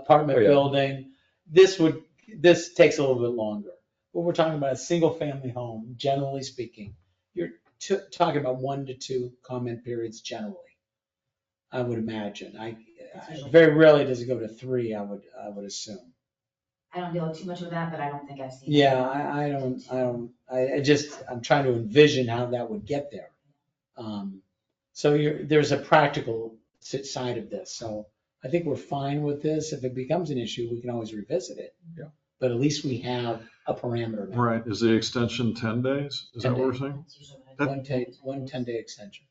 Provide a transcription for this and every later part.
apartment Oh, yeah. building. This would, this takes a little bit longer. But we're talking about a single-family home, generally speaking. You're t- talking about one to two comment periods generally, I would imagine. I, I- very rarely does it go to three, I would, I would assume. I don't deal too much with that, but I don't think I've seen. Yeah, I, I don't, I don't, I, I just, I'm trying to envision how that would get there. Um, So you're, there's a practical si- side of this, so I think we're fine with this. If it becomes an issue, we can always revisit it. Yeah. But at least we have a parameter now. Right, is the extension ten days? Is that 10 what we're saying? That's usually what I do. One ten, one ten day extension.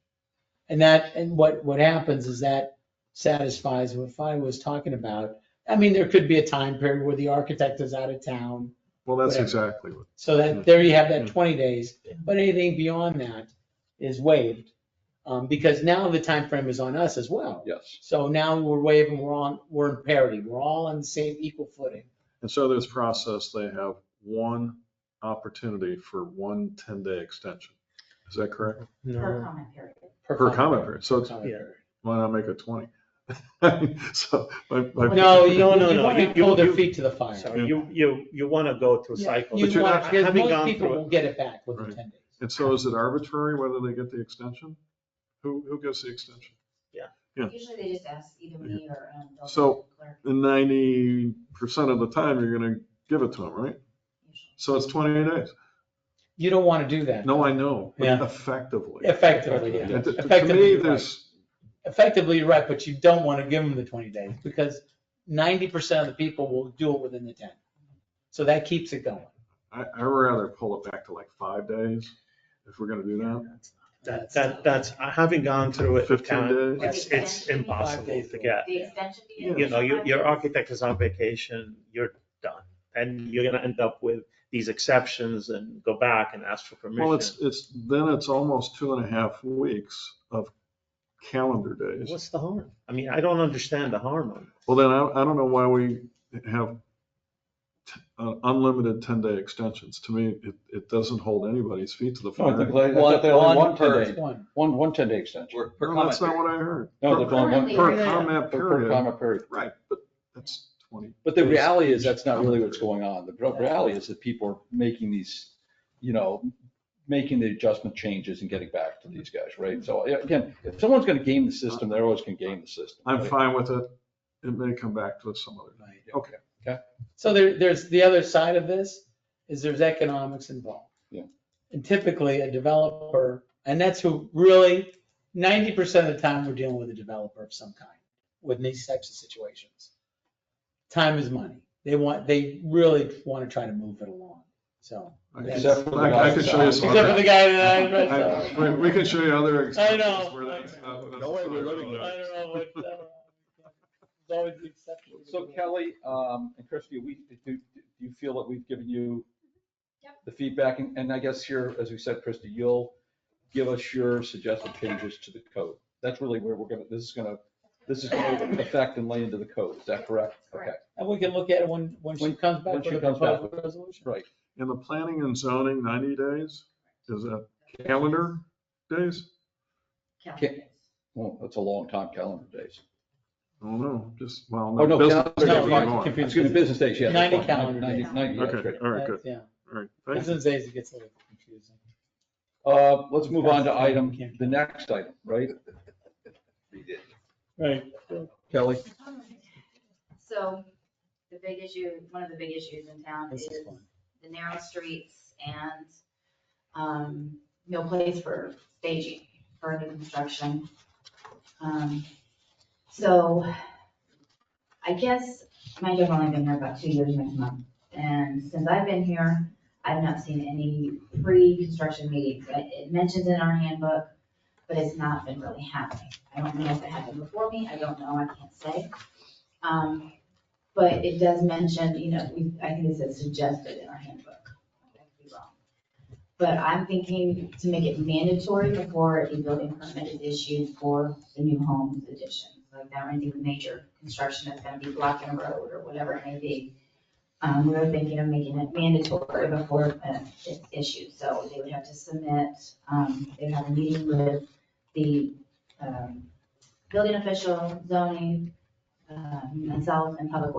And that, and what, what happens is that satisfies what Fi was talking about. I mean, there could be a time period where the architect is out of town, Well, that's Whatever. exactly what, so that, there you have that Mm. twenty days, but anything beyond that is waived. Um, because now the time frame is on us as well. Yes. So now we're waiving, we're on, we're in parity, we're all on the same equal footing. and so this process, they have one opportunity for one 10-day extension. Is that correct? Per comment period. Per comment period, so it's, comment period. why not make it twenty? So, my, my. No, you don't, No, you no, want you- to you- hold their you- feet to the fire. So Yeah. you, you, you want to go through Yeah. cycles. You But you're want- not- because Having most gone people through it- will get it back within Right. ten days. And so is it arbitrary whether they get the extension? Who, who gets the extension? Yeah. Usually they just ask either me or. um, they'll So- clerk And ninety percent of the time, you're gonna give it to them, right? usually. So it's twenty-eight days. You don't want to do that. No, I know, but Yeah. effectively. Effectively, yeah. And To to Effectively, me, you're right. there's, Effectively, you're right, but you don't want to give them the twenty days because ninety percent of the people will do it within the ten. So that keeps it going. I, I'd rather pull it back to like five days if we're gonna do that. That, that, that's, having gone through it, 15 Karen, days. it's, it's impossible to get. The extension. period You know, is your, five your days. architect is on vacation, you're done. And you're going to end up with these exceptions and go back and ask for Well, permission. it's, it's, then it's almost two and a half weeks of calendar days. What's the harm? I mean, I don't understand the harm of it. Well, then I, I don't know why we have t- uh, unlimited ten-day extensions. To me, it, it doesn't hold anybody's feet to the No, I think fire. they- I thought they only want ten per- days, One. one, one ten day extension. Or per Well, that's comment not period. what I heard. No, they're going one Currently, per, Per comment per- per period, comment period. right, but that's twenty. But the reality is, that's not really what's going on. The real- reality is that people are making these, you know, making the adjustment changes and getting back to these guys, right? So yeah, again, if someone's gonna game the system, they're always gonna game the system. I'm right? fine with it. It may come back to us some other Right. day. Okay. So there, there's, the other side of this is there's economics involved. Yeah. And typically a developer, and that's who really, ninety percent of the time, we're dealing with a developer of some kind with these types of situations. Time is money. They want, they really want to try to move it along, so. I can- Except for the I I can show you guys- some. Except for the guy that I. I- We we can show you other I examples. know. where that's not- that's- Don't worry, we're running I don't know what, uh, it's always the exception. So Kelly, um, and Christie, we, do, do you feel that we've given you Yep. the feedback? And, and I guess here, as we said, Christie, you'll give us your suggested changes to the code. That's really where we're gonna, this is gonna, this is gonna affect and lay into the code. Is that correct? Okay, Correct. And we can look at it when, when she When- comes back when she with a comes back proposed resolution. right. In the planning and zoning, ninety days, is that calendar days? Calendar Okay. days. Well, that's a long time, calendar days. I don't know, just, well, Oh, no, no, business calendar days days. is No, more. confused. Excuse me, business days, yeah. that's 90 fine. calendar 90 days. 90 that's Okay, right. all right, good, Yeah, all right. thank you. business days, it gets a little confusing. Uh, let's move on to item, the next item, right? We did. Right. Kelly? So the big issue, one of the big issues in town This is is fun. the narrow streets and um, no place for staging for new construction. Um, So I guess, mind you, I've only been here about two years next month. And since I've been here, I've not seen any pre-construction meetings. It it mentions in our handbook, but it's not been really happening. I don't know if it happened before me, I don't know, I can't say. Um, but it does mention, you know, we, I think it says suggested in our handbook. I could be wrong. But I'm thinking to make it mandatory before a building permit is issued for the new homes addition. Like that or anything with major construction that's gonna be blocking a road or whatever it may be. Um, we were thinking of making it mandatory before uh, it's issued, so they would have to submit, um, they'd have a meeting with the, um, building official, zoning, um, uh, myself and public